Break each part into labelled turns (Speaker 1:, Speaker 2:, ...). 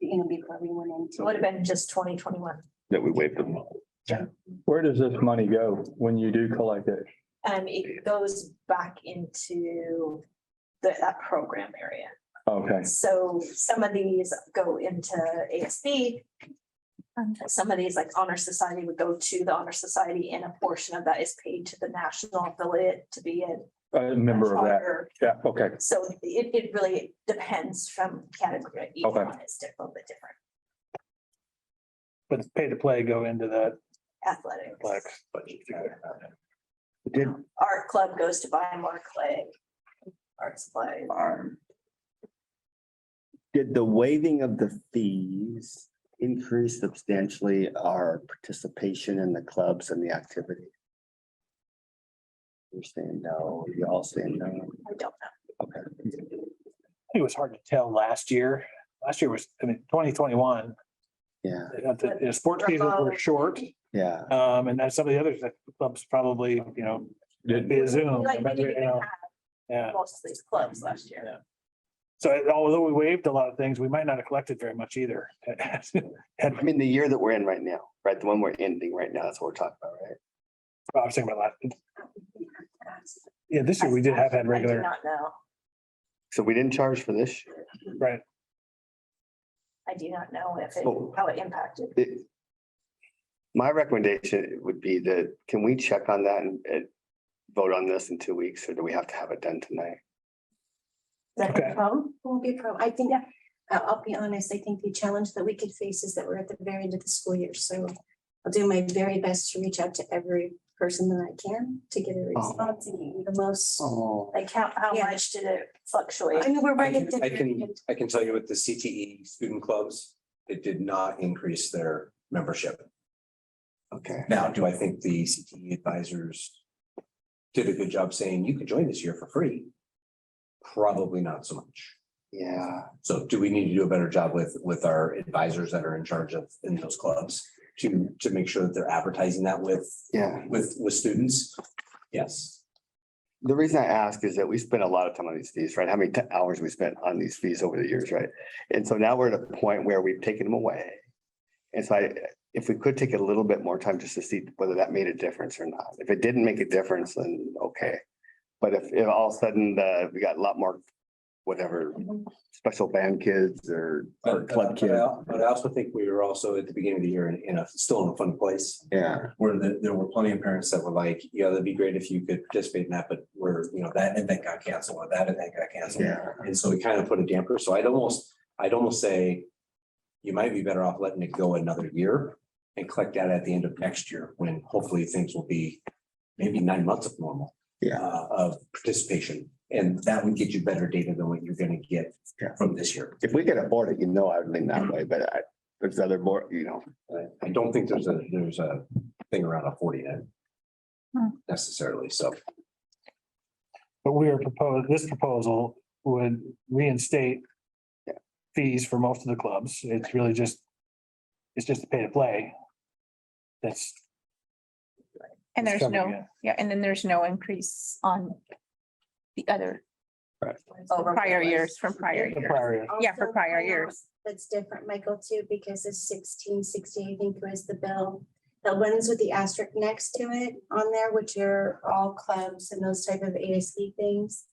Speaker 1: you know, before we went into.
Speaker 2: would have been just twenty twenty-one.
Speaker 3: that we waived them.
Speaker 4: Where does this money go when you do collect it?
Speaker 2: Um, it goes back into the, that program area.
Speaker 4: Okay,
Speaker 2: So some of these go into ASB. Some of these, like Honor Society, would go to the Honor Society and a portion of that is paid to the national affiliate to be a
Speaker 4: a member of that.
Speaker 2: charter.
Speaker 4: Yeah, okay.
Speaker 2: So it, it really depends from category. Each
Speaker 4: Okay.
Speaker 2: one is di- a little bit different.
Speaker 5: But pay to play go into that black.
Speaker 2: Athletics.
Speaker 5: budget.
Speaker 3: Did,
Speaker 2: Art club goes to buy more clay. Arts play.
Speaker 3: did the waiving of the fees increase substantially our participation in the clubs and the activity? You're saying no, y'all saying no.
Speaker 2: I don't know.
Speaker 3: Okay.
Speaker 5: I think It was hard to tell last year. Last year was, I mean, twenty twenty-one,
Speaker 3: Yeah,
Speaker 5: the the sports seasons were short.
Speaker 3: yeah.
Speaker 5: Um, and then some of the others, that clubs probably, you know,
Speaker 4: Did-
Speaker 5: via Zoom.
Speaker 2: Like, we didn't
Speaker 5: you
Speaker 2: even
Speaker 5: know,
Speaker 2: have
Speaker 5: Yeah.
Speaker 2: most of these clubs last year.
Speaker 5: Yeah. So it- although we waived a lot of things, we might not have collected very much either. Had
Speaker 3: I mean, the year that we're in right now, right? The one we're ending right now, that's what we're talking about, right?
Speaker 5: I was thinking about last, yeah, this year we did have had
Speaker 2: I do
Speaker 5: regular,
Speaker 2: not know.
Speaker 3: So we didn't charge for this. year.
Speaker 5: right?
Speaker 2: I do not know if it,
Speaker 3: Oh.
Speaker 2: how it impacted.
Speaker 3: It- My recommendation would be that, can we check on that and, and vote on this in two weeks, or do we have to have it done tonight?
Speaker 5: Okay.
Speaker 1: Problem, won't be a problem. I think, I'll, I'll be honest, I think the challenge that we could face is that we're at the very end of the school year, so. I'll do my very best to reach out to every person that I can to get a
Speaker 6: Oh.
Speaker 1: response and get you the most.
Speaker 3: Oh.
Speaker 2: Like how, how
Speaker 1: Yeah.
Speaker 2: much did it fluctuate?
Speaker 1: I mean, we're
Speaker 6: I
Speaker 1: right at the.
Speaker 6: can, I
Speaker 1: very
Speaker 6: can,
Speaker 1: end.
Speaker 6: I can tell you with the CTE student clubs, it did not increase their membership.
Speaker 3: Okay.
Speaker 6: Now, do I think the CTE advisors did a good job saying you could join this year for free? Probably not so much.
Speaker 3: Yeah,
Speaker 6: So do we need to do a better job with, with our advisors that are in charge of, in those clubs? To, to make sure that they're advertising that with,
Speaker 3: yeah.
Speaker 6: with, with students? Yes.
Speaker 3: The reason I ask is that we spent a lot of time on these fees, right? How many t- hours we spent on these fees over the years, right? And so now we're at a point where we've taken them away. And so I, if we could take a little bit more time just to see whether that made a difference or not. If it didn't make a difference, then okay. But if, if all of a sudden, uh, we got a lot more, whatever, special band kids or, or
Speaker 6: But, uh,
Speaker 3: club
Speaker 6: but
Speaker 3: kids.
Speaker 6: I, but I also think we were also at the beginning of the year in, in a, still in a fun place.
Speaker 3: Yeah,
Speaker 6: where the, there were plenty of parents that were like, yeah, that'd be great if you could participate in that, but we're, you know, that event got canceled, or that event got canceled.
Speaker 3: yeah.
Speaker 6: And so we kind of put a damper, so I'd almost, I'd almost say you might be better off letting it go another year and collect that at the end of next year, when hopefully things will be maybe nine months of normal.
Speaker 3: Yeah.
Speaker 6: uh, Of participation, and that would get you better data than what you're gonna get
Speaker 3: Yeah.
Speaker 6: from this year.
Speaker 3: If we could afford it, you know, I would lean that way, but I, there's other board, you know,
Speaker 6: I, I don't think there's a, there's a thing around a forty nine necessarily, so.
Speaker 5: But we are proposed, this proposal would reinstate
Speaker 3: Yeah.
Speaker 5: fees for most of the clubs. It's really just, it's just a pay to play. That's.
Speaker 7: And
Speaker 5: that's
Speaker 7: there's
Speaker 5: covered,
Speaker 7: no,
Speaker 5: yeah.
Speaker 7: yeah, and then there's no increase on the other
Speaker 2: over what it
Speaker 7: prior
Speaker 2: was?
Speaker 7: years from prior
Speaker 5: The
Speaker 7: years.
Speaker 5: prior year.
Speaker 7: Yeah, for
Speaker 1: Also,
Speaker 7: prior
Speaker 1: I know
Speaker 7: years.
Speaker 1: That's different, Michael, too, because it's sixteen sixty, I think was the bill. The ones with the asterisk next to it on there, which are all clubs and those type of ASB things.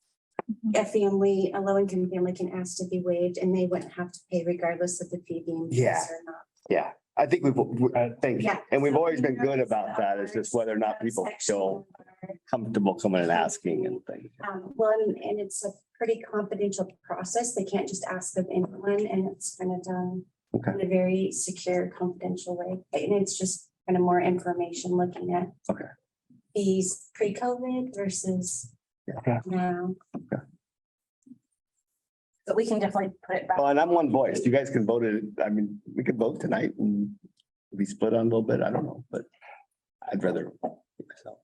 Speaker 7: Mhm.
Speaker 1: A family, a low income family can ask to be waived and they wouldn't have to pay regardless of the fee being.
Speaker 3: Yeah.
Speaker 1: passed Or not.
Speaker 3: yeah, I think we've, we-
Speaker 5: Right.
Speaker 3: thank you.
Speaker 1: Yeah.
Speaker 3: And we've
Speaker 1: So
Speaker 3: always been good
Speaker 1: there's
Speaker 3: about that. It's just whether or not
Speaker 1: that
Speaker 3: people
Speaker 1: section
Speaker 3: feel
Speaker 1: where
Speaker 3: comfortable coming and asking and things.
Speaker 1: Um, well, and, and it's a pretty confidential process. They can't just ask of anyone and it's kind of done
Speaker 3: Okay.
Speaker 1: in a very secure, confidential way. And it's just kind of more information looking at
Speaker 3: Okay.
Speaker 1: these pre-COVID versus
Speaker 5: Okay.
Speaker 1: now.
Speaker 2: But we can definitely put it back.
Speaker 3: Well, and I'm one voice. You guys can vote it. I mean, we could vote tonight and be split on a little bit. I don't know, but I'd rather. so.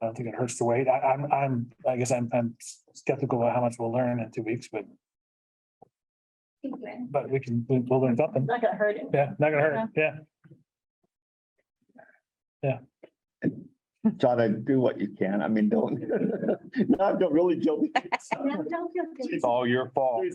Speaker 5: I don't think it hurts to wait. I, I'm, I'm, I guess I'm, I'm skeptical about how much we'll learn in two weeks, but,
Speaker 2: Not
Speaker 5: but we can, we'll learn something.
Speaker 2: gonna hurt it.
Speaker 5: Yeah, not gonna hurt. Yeah.
Speaker 3: John, I do what you can. I mean, don't, no, I don't really joke.
Speaker 1: No, don't feel guilty.
Speaker 4: It's all your fault.